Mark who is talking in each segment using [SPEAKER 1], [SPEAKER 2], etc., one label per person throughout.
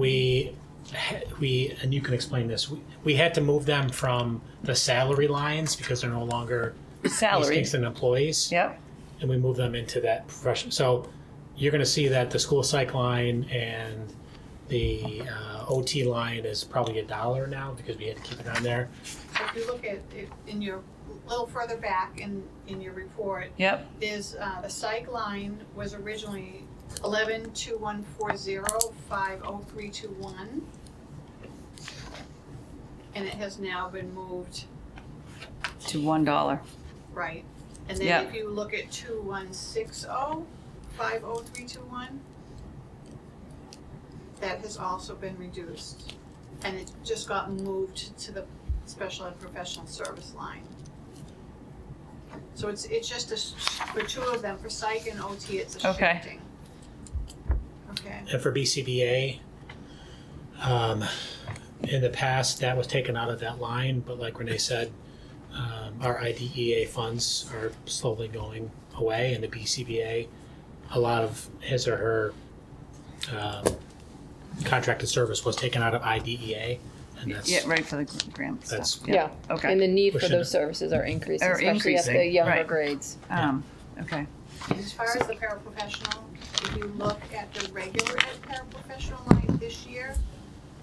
[SPEAKER 1] we ha- we and you can explain this. We, we had to move them from the salary lines because they're no longer East
[SPEAKER 2] salary.
[SPEAKER 1] Kingston employees,
[SPEAKER 2] Yep,
[SPEAKER 1] and we move them into that profession. So you're going to see that the school psych line and the uh, OT line is probably a dollar now because we had to keep it on there.
[SPEAKER 3] So if you look at, it in your, a little further back in, in your report,
[SPEAKER 2] yep,
[SPEAKER 3] there's, uh, the psych line was originally eleven two one four zero five oh three two one. And it has now been moved,
[SPEAKER 2] to one dollar.
[SPEAKER 3] right? And
[SPEAKER 2] Yeah.
[SPEAKER 3] then if you look at two one six oh five oh three two one, that has also been reduced. And it just got moved to the special and professional service line. So it's, it's just a, s- for two of them, for psych and OT, it's a
[SPEAKER 2] Okay.
[SPEAKER 3] shifting. Okay,
[SPEAKER 1] And for BCBA, um, in the past, that was taken out of that line, but like Renee said, um, our IDEA funds are slowly going away, and the BCBA, a lot of his or her um, contracted service was taken out of IDEA, and that's
[SPEAKER 2] Yeah, right for the gr- grant
[SPEAKER 1] That's-
[SPEAKER 2] stuff.
[SPEAKER 4] Yeah,
[SPEAKER 2] Okay.
[SPEAKER 4] and the need
[SPEAKER 1] We
[SPEAKER 4] for
[SPEAKER 1] should-
[SPEAKER 4] those services are increasing,
[SPEAKER 2] Are
[SPEAKER 4] especially at the
[SPEAKER 2] increasing,
[SPEAKER 4] younger
[SPEAKER 2] right.
[SPEAKER 4] grades.
[SPEAKER 2] Um, okay,
[SPEAKER 3] as far as the paraprofessional, if you look at the regular ed paraprofessional line this year,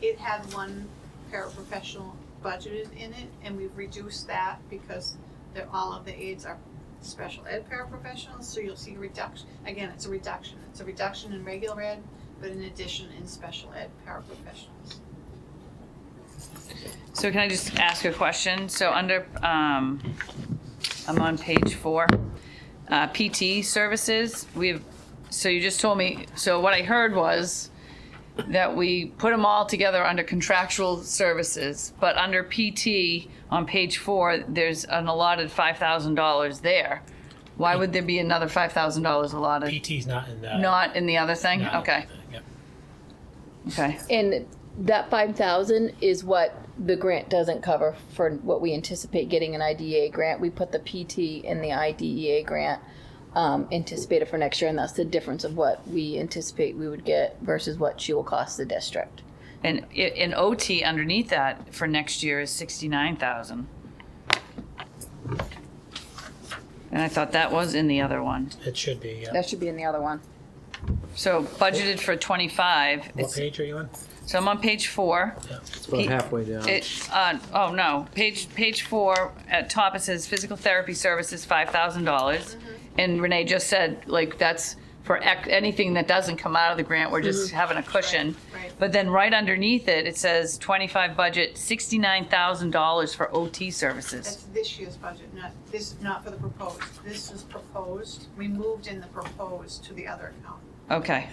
[SPEAKER 3] it had one paraprofessional budgeted in it, and we've reduced that because they're, all of the aides are special ed paraprofessionals, so you'll see a reduction, again, it's a reduction, it's a reduction in regular ed, but an addition in special ed paraprofessionals.
[SPEAKER 2] so can I just ask a question? So under, um, I'm on page four, uh, PT services, we've, so you just told me, so what I heard was that we put them all together under contractual services, but under PT on page four, there's an allotted five thousand dollars there. Why would there be another five thousand dollars allotted?
[SPEAKER 1] PT's not in the.
[SPEAKER 2] Not in the other thing?
[SPEAKER 1] not in
[SPEAKER 2] Okay,
[SPEAKER 1] the- yep.
[SPEAKER 2] okay,
[SPEAKER 4] And that five thousand is what the grant doesn't cover for what we anticipate getting an IDEA grant. We put the PT in the IDEA grant um, anticipated for next year, and that's the difference of what we anticipate we would get versus what she will cost the district.
[SPEAKER 2] and, i- and OT underneath that for next year is sixty-nine thousand. And I thought that was in the other one,
[SPEAKER 1] It should be, yeah.
[SPEAKER 4] That should be in the other one.
[SPEAKER 2] so budgeted for twenty-five,
[SPEAKER 1] What
[SPEAKER 2] it's-
[SPEAKER 1] page are you on?
[SPEAKER 2] so I'm on page four.
[SPEAKER 5] It's about
[SPEAKER 2] He-
[SPEAKER 5] halfway down.
[SPEAKER 2] It, uh, oh no, page, page four, at top it says physical therapy services, five thousand dollars. And Renee just said, like, that's for ec- anything that doesn't come out of the grant, we're just having a cushion.
[SPEAKER 3] Right, right.
[SPEAKER 2] But then right underneath it, it says twenty-five budget, sixty-nine thousand dollars for OT services.
[SPEAKER 3] That's this year's budget, not, this, not for the proposed, this is proposed, we moved in the proposed to the other account.
[SPEAKER 2] Okay,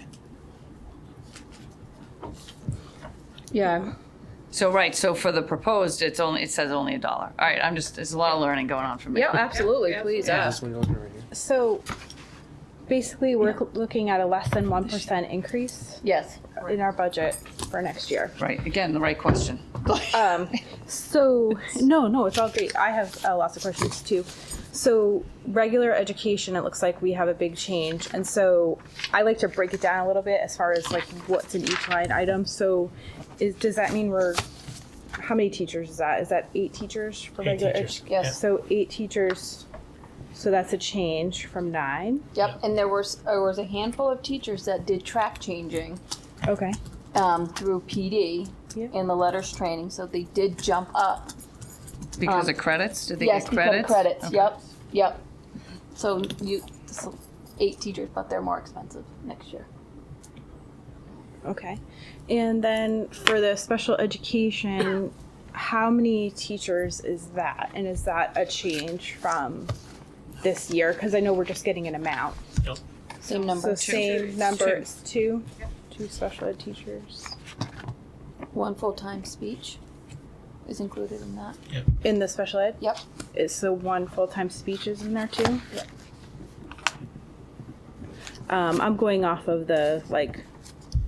[SPEAKER 4] Yeah,
[SPEAKER 2] so right, so for the proposed, it's only, it says only a dollar. All right, I'm just, there's a lot of learning going on for me.
[SPEAKER 4] yeah, absolutely. Please
[SPEAKER 3] Yeah.
[SPEAKER 4] ask.
[SPEAKER 5] This one over right here.
[SPEAKER 6] So basically, we're looking at a less than 1% increase
[SPEAKER 4] Yes.
[SPEAKER 6] in our budget for next year.
[SPEAKER 2] Right, again, the right question.
[SPEAKER 6] Um, so, no, no, it's all great. I have uh, lots of questions too. So, regular education, it looks like we have a big change. And so, I like to break it down a little bit as far as like what's in each line item. So, is, does that mean we're, how many teachers is that? Is that eight teachers for
[SPEAKER 1] Eight
[SPEAKER 6] regular
[SPEAKER 1] teachers.
[SPEAKER 6] edu-
[SPEAKER 4] Yes.
[SPEAKER 6] So, eight teachers. So, that's a change from nine.
[SPEAKER 4] Yep. And there was there was a handful of teachers that did track changing.
[SPEAKER 6] Okay.
[SPEAKER 4] um, through PD
[SPEAKER 6] Yeah.
[SPEAKER 4] in the letters training, so they did jump up.
[SPEAKER 2] Because
[SPEAKER 4] Um,
[SPEAKER 2] of credits, did they
[SPEAKER 4] yes,
[SPEAKER 2] get
[SPEAKER 4] become
[SPEAKER 2] credits?
[SPEAKER 4] credits.
[SPEAKER 2] Okay.
[SPEAKER 4] Yep, yep. So you so eight teachers, but they're more expensive next year.
[SPEAKER 6] Okay. And then for the special education, how many teachers is that? And is that a change from this year? Because I know we're just getting an amount.
[SPEAKER 4] Same
[SPEAKER 6] So
[SPEAKER 4] number,
[SPEAKER 6] same
[SPEAKER 3] Two.
[SPEAKER 6] number,
[SPEAKER 2] Two.
[SPEAKER 6] it's two,
[SPEAKER 3] Yep.
[SPEAKER 6] two special ed teachers
[SPEAKER 4] one full time speech is included in that.
[SPEAKER 6] in the special ed?
[SPEAKER 4] Yep.
[SPEAKER 6] Is so one full-time speech is in there too?
[SPEAKER 4] Yep.
[SPEAKER 6] Um, I'm going off of the like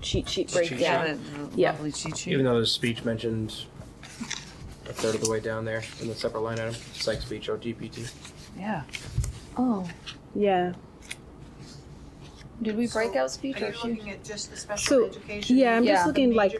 [SPEAKER 6] cheat sheet
[SPEAKER 5] Cheat sheet.
[SPEAKER 6] breakdown.
[SPEAKER 2] Yeah, the the
[SPEAKER 6] Yeah.
[SPEAKER 2] lovely cheat sheet.
[SPEAKER 5] Even though there's speech mentioned a third of the way down there in the separate line item, psych speech, OGPT.
[SPEAKER 2] Yeah.
[SPEAKER 4] Oh,
[SPEAKER 6] Yeah.
[SPEAKER 4] did we break out speech
[SPEAKER 3] Are
[SPEAKER 4] or
[SPEAKER 3] you
[SPEAKER 4] she?
[SPEAKER 3] looking at just the special
[SPEAKER 6] So,
[SPEAKER 3] education?
[SPEAKER 6] Yeah, I'm
[SPEAKER 4] Yeah.
[SPEAKER 6] just looking like